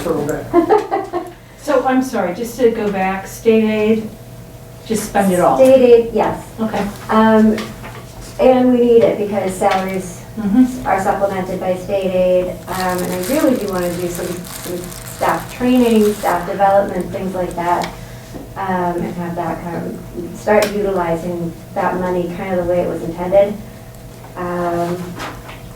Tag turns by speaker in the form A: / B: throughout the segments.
A: program.
B: So I'm sorry, just to go back, state aid, just spend it all.
C: State aid, yes.
B: Okay.
C: Um, And we need it because salaries
B: Mhm.
C: are supplemented by state aid. Um, And I really do want to do some some staff training, staff development, things like that. um, And have that come, start utilizing that money kind of the way it was intended. Um,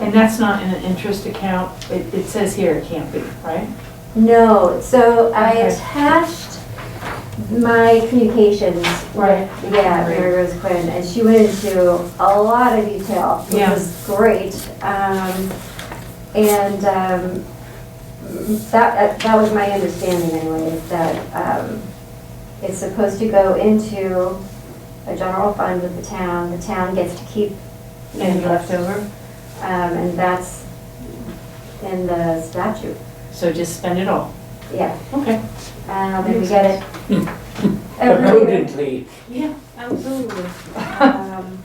B: And that's not in an interest account, it, it says here it can't be, right?
C: No, so I
B: Okay.
C: attached my communications
B: Right.
C: with, yeah, Mary Rose Quinn, and she went into a lot of detail, which
B: Yeah.
C: was great. Um, And um, that, uh, that was my understanding anyway, is that um, it's supposed to go into a general fund with the town. The town gets to keep
B: And left over,
C: um, and that's in the statute,
B: so just spend it all.
C: yeah.
B: Okay.
C: Um, and we get it. Every-
A: Prudently,
B: Yeah, absolutely.
C: um,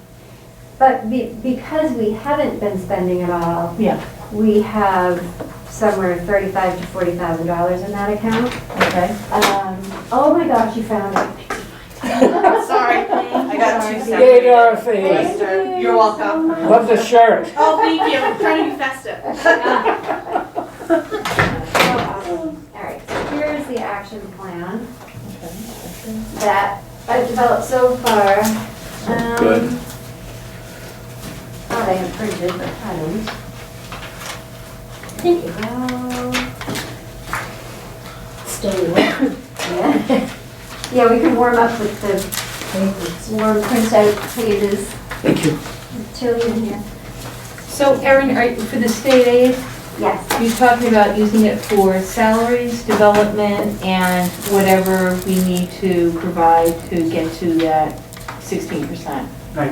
C: But be, because we haven't been spending it all,
B: Yeah,
C: we have somewhere thirty-five to forty thousand dollars in that account.
B: okay.
C: Um, oh my gosh, you found it.
D: Sorry, I got two
C: Sorry.
D: separate.
A: yay
C: Thank
A: Dorothy,
D: Mister,
C: you
D: you're welcome.
C: so much.
A: love the shirt.
D: Oh, thank you, I'm trying to be festive.
C: So awesome. All right, so here's the action plan that I've developed so far. Um,
E: Good.
C: Thought I had printed, but I don't. Thank you. Well,
F: Stay away.
C: Yeah, Yeah, we can warm up with the warm printout pages.
E: Thank you.
C: Tilly in here.
B: So Erin, are, you- for the state aid,
C: Yes,
B: you're talking about using it for salaries, development, and whatever we need to provide to get to that sixteen percent.
C: uh,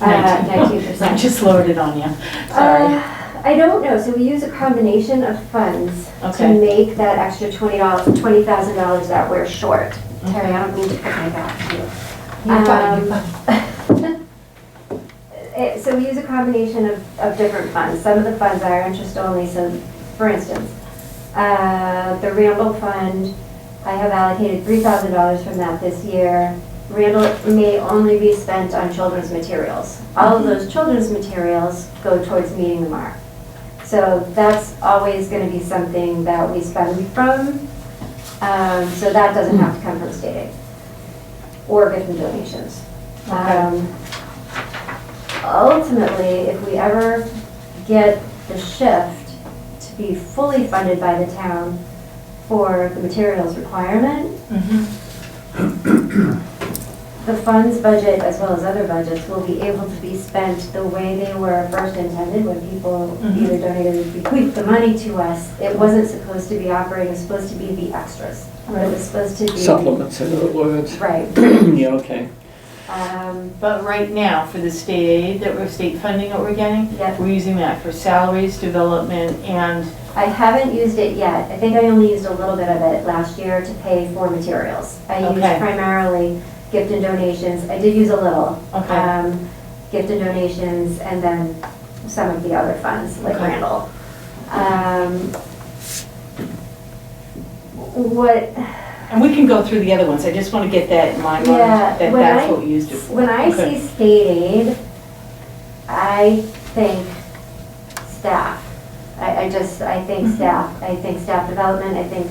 C: nineteen
B: I
C: percent.
B: just lowered it on you, sorry.
C: Uh, I don't know, so we use a combination of funds to
B: Okay.
C: make that extra twenty dollars, twenty thousand dollars that we're short. Terry, I don't mean to put my back to you.
F: You're fine, you're
C: Um, Eh, So we use a combination of, of different funds. Some of the funds are interest only, so for instance, uh, the Randall Fund, I have allocated three thousand dollars from that this year. Randall may only be spent on children's materials. All of those children's materials go towards meeting the mark. So that's always gonna be something that we spend from, um, so that doesn't have to come from state aid or get from donations.
B: Okay.
C: Um, Ultimately, if we ever get the shift to be fully funded by the town for the materials requirement,
B: Mhm.
C: the funds budget, as well as other budgets, will be able to be spent the way they were first intended, when people
B: Mhm.
C: either donated or bequeathed the money to us. It wasn't supposed to be operating, it was supposed to be the extras. It
B: Right.
C: was supposed to be.
E: Supplements, in other words.
C: Right.
E: Yeah, okay.
C: Um,
B: But right now, for the state aid that we're, state funding that we're getting,
C: Yep.
B: we're using that for salaries, development, and,
C: I haven't used it yet. I think I only used a little bit of it last year to pay for materials. I used
B: Okay.
C: primarily gift and donations. I did use a little.
B: okay,
C: um, gift and donations, and then some of the other funds, like
B: Okay.
C: Randall. Um, What,
B: and we can go through the other ones, I just want to get that in my mind,
C: Yeah,
B: that
C: when
B: that's
C: I-
B: what we used it for.
C: when I
B: Okay.
C: see state aid, I think staff. I, I just, I think
B: Mm-hmm.
C: staff, I think staff development, I think,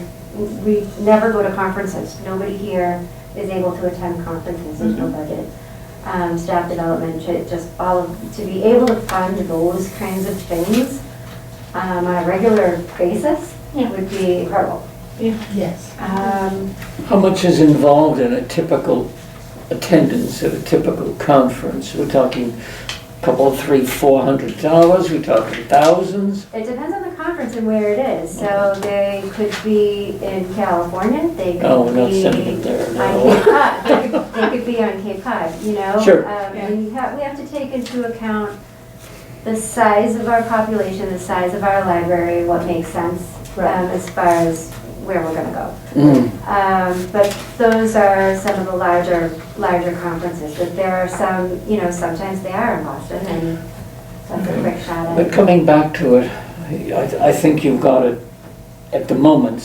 C: we never go to conferences. Nobody here is able to attend conferences, there's
B: Mm-hmm.
C: no budget. Um, staff development, to just all, of- to be able to fund those kinds of things um, on a regular basis
B: Yeah.
C: would be incredible.
F: Yes.
C: Um,
E: How much is involved in a typical attendance at a typical conference? We're talking a couple, three, four hundred dollars, we're talking thousands?
C: It depends on the conference and where it is. So they could be in California, they could be.
E: Oh, we're not sending it there,
C: on Cape
E: no.
C: Cod, They could- they could be on Cape Cod, you know?
E: Sure.
C: Um, We have, we have to take into account the size of our population, the size of our library, what makes sense um,
B: Right.
C: as far as where we're gonna go.
E: Mm,
C: Um, But those are some of the larger, larger conferences, but there are some, you know, sometimes they are in Boston, and that's
E: Mm-hmm.
C: a quick shot at.
E: But coming back to it, I, I think you've got it at the moment